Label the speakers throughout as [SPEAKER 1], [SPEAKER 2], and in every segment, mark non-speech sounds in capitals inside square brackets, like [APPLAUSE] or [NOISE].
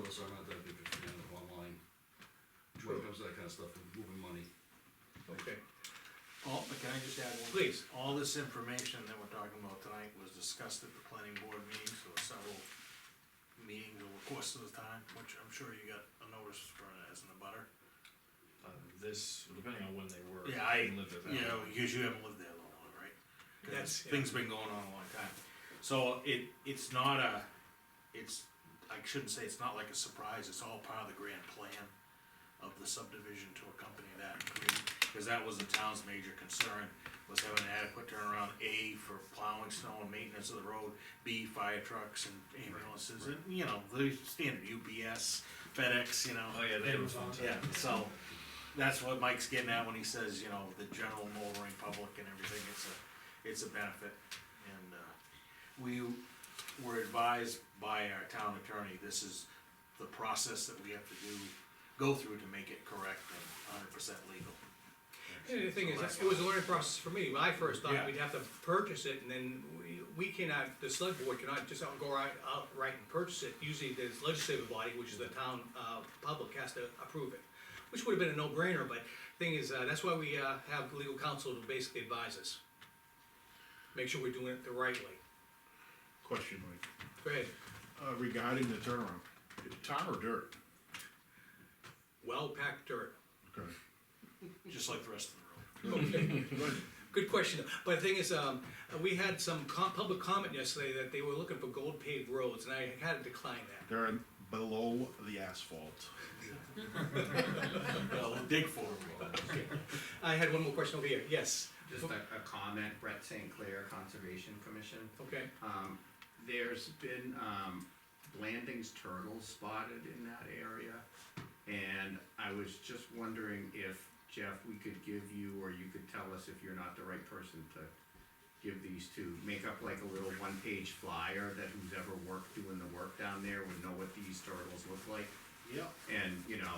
[SPEAKER 1] other song out there, if you can, online. When it comes to that kind of stuff, moving money.
[SPEAKER 2] Okay,
[SPEAKER 3] All, Oh, but can I just add one?
[SPEAKER 2] Please.
[SPEAKER 3] All this information that we're talking about tonight was discussed at the planning board meetings, or several meetings over the course of the time, which I'm sure you got a notice for it as in the butter.
[SPEAKER 4] Uh, This, depending on when they were.
[SPEAKER 3] Yeah, I,
[SPEAKER 4] lived at that
[SPEAKER 3] you know,
[SPEAKER 4] point.
[SPEAKER 3] because you haven't lived there long, right? 'Cause
[SPEAKER 2] That's- yeah.
[SPEAKER 3] Things been going on a long time, so it, it's not a, it's, I shouldn't say it's not like a surprise, it's all part of the grand plan of the subdivision to accompany that, because that was the town's major concern, was having an adequate turnaround, A, for plowing snow and maintenance of the road, B, fire trucks and ambulances, and, you know, the standard UPS, FedEx, you know.
[SPEAKER 4] Oh, yeah, they were fun.
[SPEAKER 3] Yeah, so, that's what Mike's getting at when he says, you know, the general motoring public and everything, it's a, it's a benefit. And, uh, we were advised by our town attorney, this is the process that we have to do, go through to make it correct and hundred percent legal.
[SPEAKER 2] and the thing is,
[SPEAKER 3] That's
[SPEAKER 2] it was a learning process for me, when I first thought
[SPEAKER 3] Yeah.
[SPEAKER 2] we'd have to purchase it, and then we, we cannot, the select board cannot just out- go right, outright and purchase it, usually this legislative body, which is the town, uh, public has to approve it. Which would have been a no-brainer, but thing is, uh, that's why we, uh, have legal counsel to basically advise us. Make sure we're doing it the right way,
[SPEAKER 5] Question, Mike,
[SPEAKER 2] go ahead,
[SPEAKER 5] uh, regarding the turnaround, tar or dirt?
[SPEAKER 2] well-packed dirt.
[SPEAKER 5] [LAUGHS] Okay,
[SPEAKER 3] Just like the rest of the road.
[SPEAKER 5] [LAUGHS]
[SPEAKER 2] Good question, but the thing is, um, we had some com- public comment yesterday that they were looking for gold paved roads, and I had to decline that.
[SPEAKER 5] they're below the asphalt.
[SPEAKER 3] Well, we'll dig for it.
[SPEAKER 2] I had one more question over here, yes,
[SPEAKER 6] Just a, a comment, Brett St. Clair Conservation Commission.
[SPEAKER 2] okay,
[SPEAKER 6] Um, there's been, um, Blanding's turtles spotted in that area. And I was just wondering if, Jeff, we could give you, or you could tell us if you're not the right person to give these to, make up like a little one-page flyer that who's ever worked doing the work down there would know what these turtles look like.
[SPEAKER 5] Yep.
[SPEAKER 6] And, you know,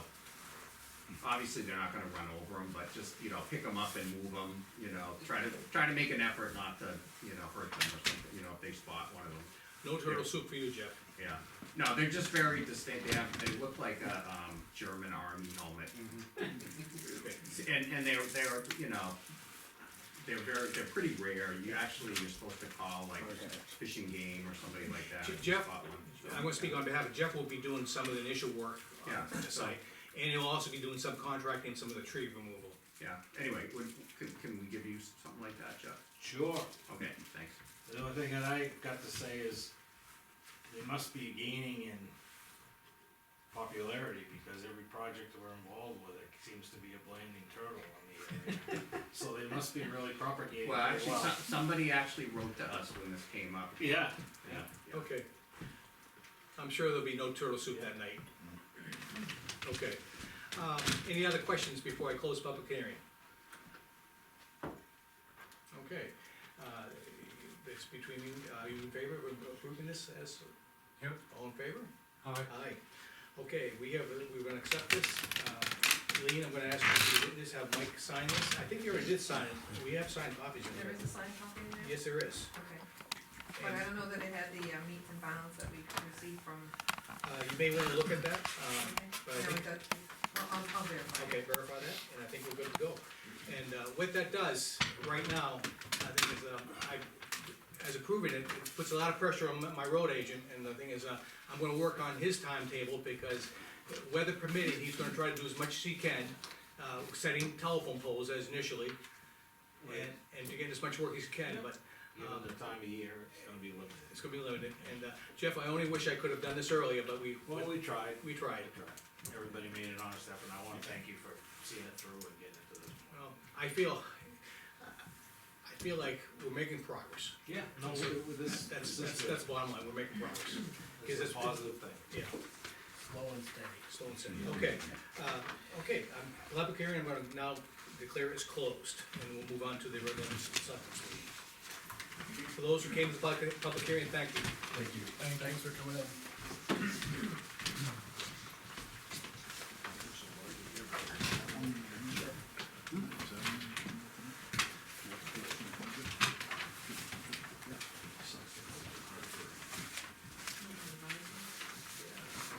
[SPEAKER 6] obviously they're not gonna run over them, but just, you know, pick them up and move them, you know, try to, try to make an effort not to, you know, hurt them or something, you know, if they spot one of them.
[SPEAKER 2] no turtle soup for you, Jeff.
[SPEAKER 6] Yeah, no, they're just very distinct, they have, they look like a, um, German army helmet. And, and they're, they're, you know, they're very, they're pretty rare, you actually, you're supposed to call like fishing game or somebody like that.
[SPEAKER 2] Je-
[SPEAKER 6] if you
[SPEAKER 2] Jeff,
[SPEAKER 6] spot one.
[SPEAKER 2] I'm gonna speak on behalf of Jeff, will be doing some of the initial work
[SPEAKER 6] Yeah.
[SPEAKER 2] on the site, and he'll also be doing some contracting, some of the tree removal.
[SPEAKER 6] Yeah, anyway, would, can, can we give you something like that, Jeff?
[SPEAKER 3] Sure.
[SPEAKER 6] Okay, thanks.
[SPEAKER 3] The only thing that I got to say is, they must be gaining in popularity, because every project we're involved with, it seems to be a blaming turtle on [LAUGHS] the area. So they must be really propagating it
[SPEAKER 6] Well, actually,
[SPEAKER 3] well.
[SPEAKER 6] some, somebody actually wrote to us when this came up.
[SPEAKER 3] Yeah, yeah.
[SPEAKER 6] Yeah.
[SPEAKER 2] Okay. I'm sure there'll be no turtle soup that night. Okay. Um, any other questions before I close public hearing? Okay, uh, it's between, you. are you in favor of approving this as?
[SPEAKER 7] Yep.
[SPEAKER 2] All in favor?
[SPEAKER 7] Aye.
[SPEAKER 2] Aye. Okay, we have, we're gonna accept this. Uh, Lean, I'm gonna ask you to do this, have Mike sign this. I think you already did sign it. We have signed copies of
[SPEAKER 8] There
[SPEAKER 2] it.
[SPEAKER 8] is a signed copy in there?
[SPEAKER 2] Yes, there is.
[SPEAKER 8] Okay, but I
[SPEAKER 2] And-
[SPEAKER 8] don't know that it had the uh, meets and bounds that we received from,
[SPEAKER 2] Uh, you may wanna look at that, um, but I
[SPEAKER 8] no,
[SPEAKER 2] think
[SPEAKER 8] it does, I'll, I'll- I'll verify.
[SPEAKER 2] Okay, verify that, and I think we're good to go. And uh, what that does, right now, I think is, um, I, as approving it, it puts a lot of pressure on my- my road agent, and the thing is, uh, I'm gonna work on his timetable, because weather permitting, he's gonna try to do as much as he can, uh, setting telephone poles as initially, and, and to get as much work as he can, but
[SPEAKER 3] Given the time of year, it's gonna be limited.
[SPEAKER 2] it's gonna be limited. And uh, Jeff, I only wish I could have done this earlier, but we,
[SPEAKER 3] Well, we tried,
[SPEAKER 2] we tried.
[SPEAKER 3] everybody made an honest effort, and I wanna thank you for seeing it through and getting it to this point.
[SPEAKER 2] Well, Um, I feel, I feel like we're making progress.
[SPEAKER 3] Yeah, no, with this,
[SPEAKER 2] That's, that's, that's bottom line, we're making progress,
[SPEAKER 3] This is
[SPEAKER 2] This is
[SPEAKER 3] a positive thing.
[SPEAKER 2] yeah,
[SPEAKER 7] Slow and steady.
[SPEAKER 2] slow and steady, okay. Uh, okay, um, public hearing, I'm gonna now declare is closed, and we'll move on to the regular selectmen's meeting. For those who came to the public, public hearing, thank you.
[SPEAKER 7] Thank you. Thanks for coming in.